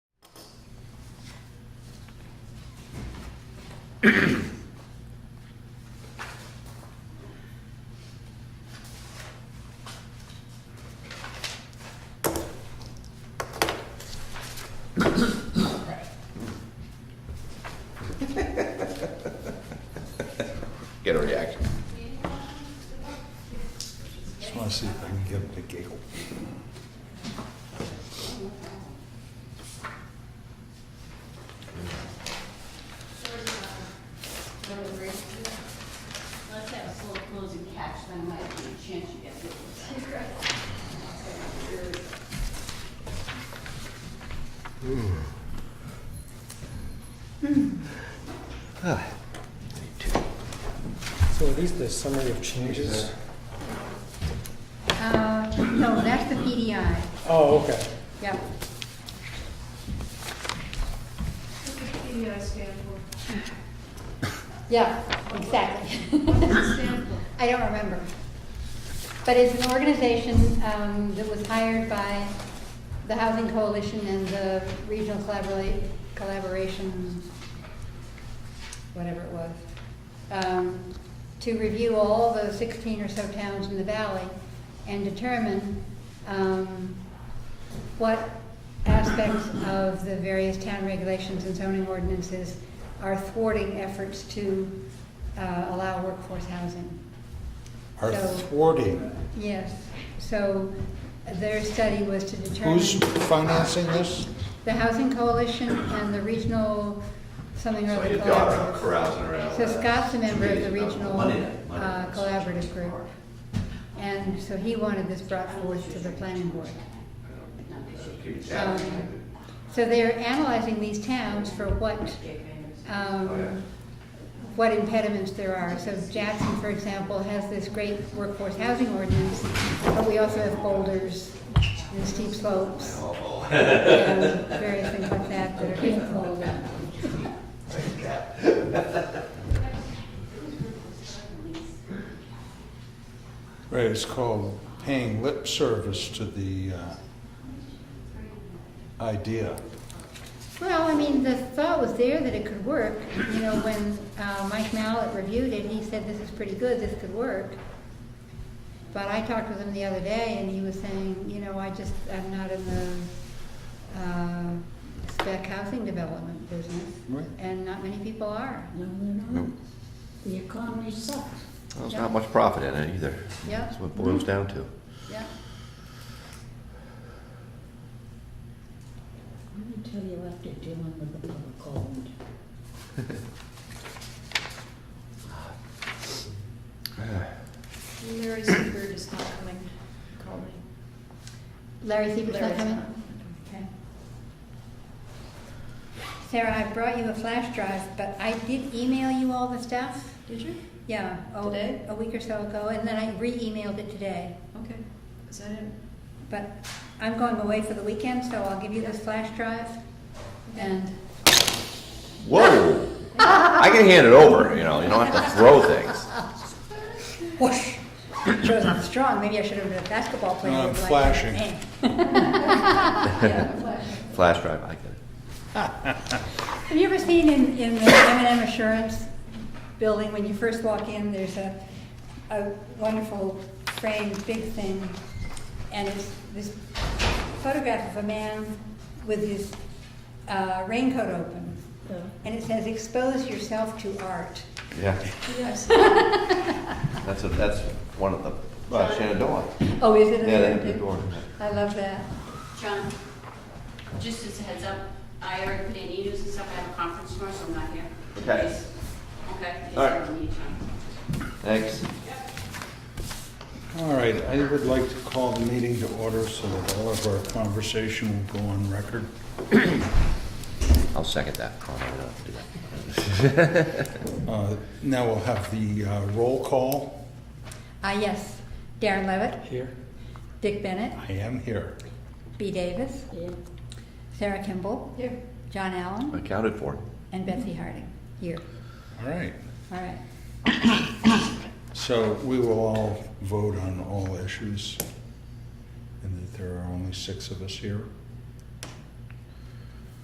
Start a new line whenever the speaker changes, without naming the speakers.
Get a reaction.
Just wanna see if I can get him to giggle.
Let's have a slow closing catch, then might be a chance you get it.
So are these the summary of changes?
Uh, No, that's the PDI,
Oh, okay.
yep.
What does PDI stand for?
Yeah, exactly.
What does it stand for?
I don't remember. But it's an organization um, that was hired by the Housing Coalition and the Regional Collabora- Collaboration, whatever it was, um, to review all the 16 or so towns in the valley and determine um, what aspects of the various town regulations and zoning ordinances are thwarting efforts to uh, allow workforce housing.
Are
So- um,
thwarting,
Yes, so their study was to determine.
who's financing this?
The Housing Coalition and the Regional, something or
So
other
your daughter
collaborative.
carousing around.
So Scott's a member of the
Monday night,
Regional
Monday night, Monday
uh,
night.
Collaborative Group. And so he wanted this brought forward to the planning board. Um, So they're analyzing these towns for what, um, what impediments there are. So Jackson, for example, has this great workforce housing ordinance, but we also have boulders and steep slopes. and Various things like that that are painful.
Right, it's called paying lip service to the uh, idea.
Well, I mean, the thought was there that it could work. You know, when uh, Mike Mallett reviewed it, he said, this is pretty good, this could work. But I talked with him the other day, and he was saying, you know, I just, I'm not in the uh, spec housing development business.
Right.
And not many people are.
No, they're
Nope.
not. The economy sucks.
Well, There's not much profit in it either.
Yeah.
That's what it boils down to.
Yeah.
Let me tell you after dealing with the public cold.
Larry Seabird is not coming, call me.
Larry Siebert's not
Larry's
coming?
not.
Okay. Sarah, I brought you a flash drive, but I did email you all the stuff.
Did you?
Yeah, a-
Today?
a week or so ago, and then I re-emailed it today.
Okay, is that it?
But I'm going away for the weekend, so I'll give you this flash drive. And
Whoa! I can hand it over, you know, you don't have to throw things.
whoosh, shows I'm strong. Maybe I should have been a basketball player.
No, I'm
Like,
flashing.
eh.
Flash drive, I get it.
Have you ever seen in, in the M and M Assurance building, when you first walk in, there's a, a wonderful framed big thing, and it's this photograph of a man with his uh, raincoat open,
Yeah.
and it says, "Expose yourself to art."
Yeah,
Yes.
that's, a- that's one of the, uh, Shenandoah.
Oh, is it? in
Yeah, they
there,
have the
too?
door.
I love that.
John, just as a heads up, I already put in emails and stuff, I have a conference tomorrow, so I'm not here.
Okay.
Please. Okay.
All right.
It's, um,
Thanks.
All right, I would like to call the meeting to order so that all of our conversation will go on record.
I'll second that. Oh, no, we don't have to do that.
Uh, Now we'll have the uh, roll call.
Ah, yes. Darren Levitt,
Here?
Dick Bennett,
I am here.
B. Davis,
Yeah.
Sarah Kimball,
Here.
John Allen,
Accounted for.
and Betsy Harding. Here.
All right,
All right.
so we will all vote on all issues, and that there are only six of us here.